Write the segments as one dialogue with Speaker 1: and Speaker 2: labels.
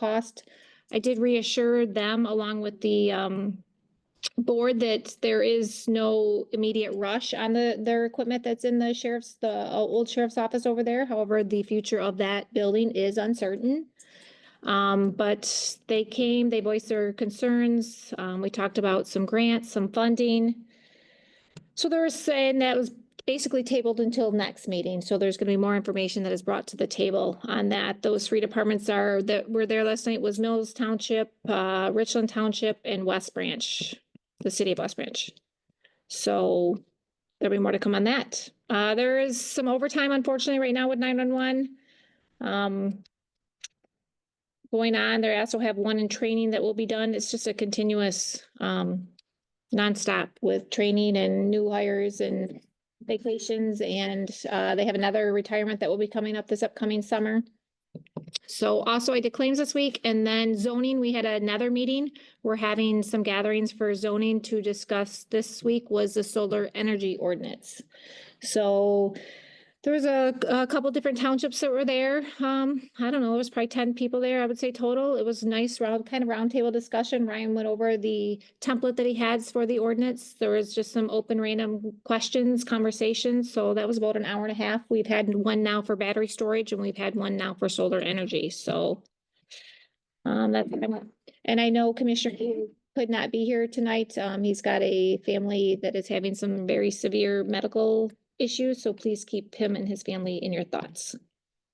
Speaker 1: cost. I did reassure them along with the um board that there is no immediate rush on the their equipment that's in the sheriff's, the uh, old sheriff's office over there. However, the future of that building is uncertain. Um, but they came, they voiced their concerns. Um, we talked about some grants, some funding. So they're saying that was basically tabled until next meeting, so there's gonna be more information that is brought to the table on that. Those three departments are, that were there last night was Mills Township, uh, Richland Township and West Branch, the city of West Branch. So there'll be more to come on that. Uh, there is some overtime unfortunately right now with nine-one-one. Um, going on, they also have one in training that will be done. It's just a continuous, um, nonstop with training and new hires and vacations and uh, they have another retirement that will be coming up this upcoming summer. So also I did claims this week and then zoning, we had another meeting. We're having some gatherings for zoning to discuss. This week was the solar energy ordinance. So there was a, a couple different townships that were there. Um, I don't know, there was probably ten people there, I would say total. It was nice round, kind of roundtable discussion. Ryan went over the template that he has for the ordinance. There was just some open random questions, conversations, so that was about an hour and a half. We've had one now for battery storage and we've had one now for solar energy, so. Um, that, and I know Commissioner Hu could not be here tonight. Um, he's got a family that is having some very severe medical issues, so please keep him and his family in your thoughts.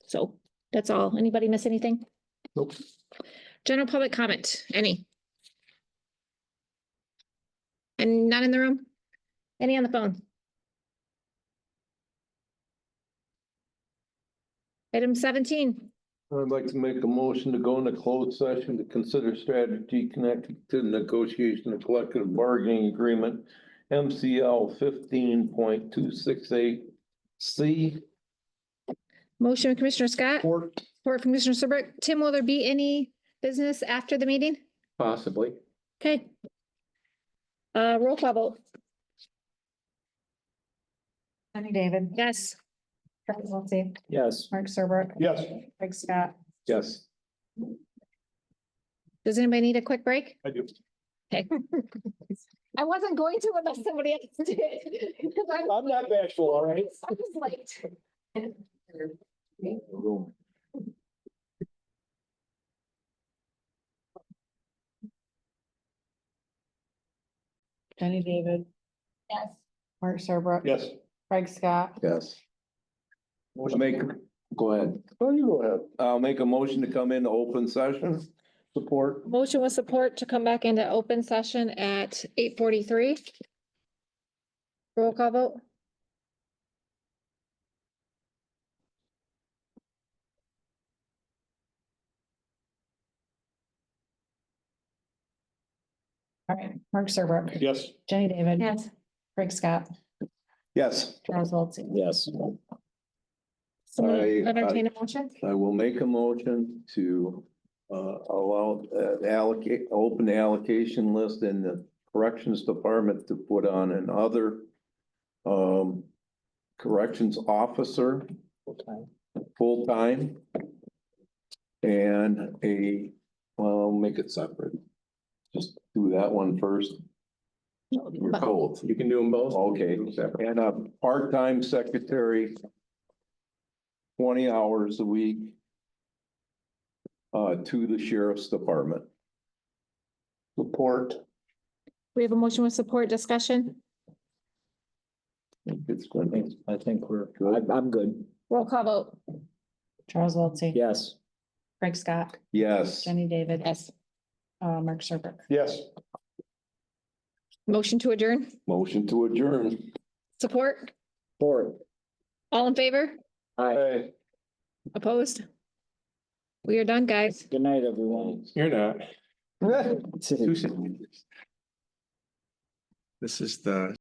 Speaker 1: So that's all. Anybody miss anything?
Speaker 2: Nope.
Speaker 1: General public comment, any? And none in the room? Any on the phone? Item seventeen,
Speaker 2: I'd like to make a motion to go into closed session to consider strategy connected to negotiation of collective bargaining agreement. MCL fifteen point two six eight C.
Speaker 1: motion of Commissioner Scott, support from Commissioner Serbrook. Tim, will there be any business after the meeting?
Speaker 2: Possibly.
Speaker 1: Okay. Uh, roll call vote,
Speaker 3: Jenny David.
Speaker 1: yes.
Speaker 3: Travis Wiltie.
Speaker 2: Yes.
Speaker 3: Mark Serbrook.
Speaker 2: Yes.
Speaker 3: Craig Scott.
Speaker 2: Yes.
Speaker 1: Does anybody need a quick break?
Speaker 2: I do.
Speaker 1: I wasn't going to unless somebody else did. 'Cause I was-
Speaker 2: I'm not bashful, all right?
Speaker 1: I was late.
Speaker 3: Jenny David.
Speaker 1: Yes.
Speaker 3: Mark Serbrook.
Speaker 2: Yes.
Speaker 3: Craig Scott.
Speaker 2: Yes. Make, go ahead. Oh, you go ahead. I'll make a motion to come into open session. Support.
Speaker 1: Motion with support to come back into open session at eight forty-three. Roll call vote?
Speaker 3: All right, Mark Serbrook.
Speaker 2: Yes.
Speaker 3: Jenny David. Craig Scott.
Speaker 2: Yes.
Speaker 3: Travis Wiltie.
Speaker 2: Yes.
Speaker 1: Somebody
Speaker 2: I- I-
Speaker 1: Entertain a motion?
Speaker 2: I will make a motion to uh allow uh, allocate, open the allocation list in the corrections department to put on another um corrections officer. Full-time. And a, well, make it separate. Just do that one first. We're both.
Speaker 4: You can do them both?
Speaker 2: Okay, and a part-time secretary. Twenty hours a week. Uh, to the sheriff's department. Support.
Speaker 1: We have a motion with support discussion.
Speaker 2: It's gonna be
Speaker 4: I think we're, I'm, I'm good.
Speaker 1: Roll call vote?
Speaker 3: Charles Wiltie.
Speaker 4: Yes.
Speaker 3: Craig Scott.
Speaker 2: Yes.
Speaker 3: Jenny David.
Speaker 1: Yes.
Speaker 3: Uh, Mark Serbrook.
Speaker 2: Yes.
Speaker 1: Motion to adjourn?
Speaker 2: Motion to adjourn.
Speaker 1: Support?
Speaker 4: Four.
Speaker 1: All in favor?
Speaker 4: Hi,
Speaker 2: Hey,
Speaker 1: Opposed? We are done, guys.
Speaker 4: good night, everyone.
Speaker 5: You're not.
Speaker 2: Hey.
Speaker 5: This is the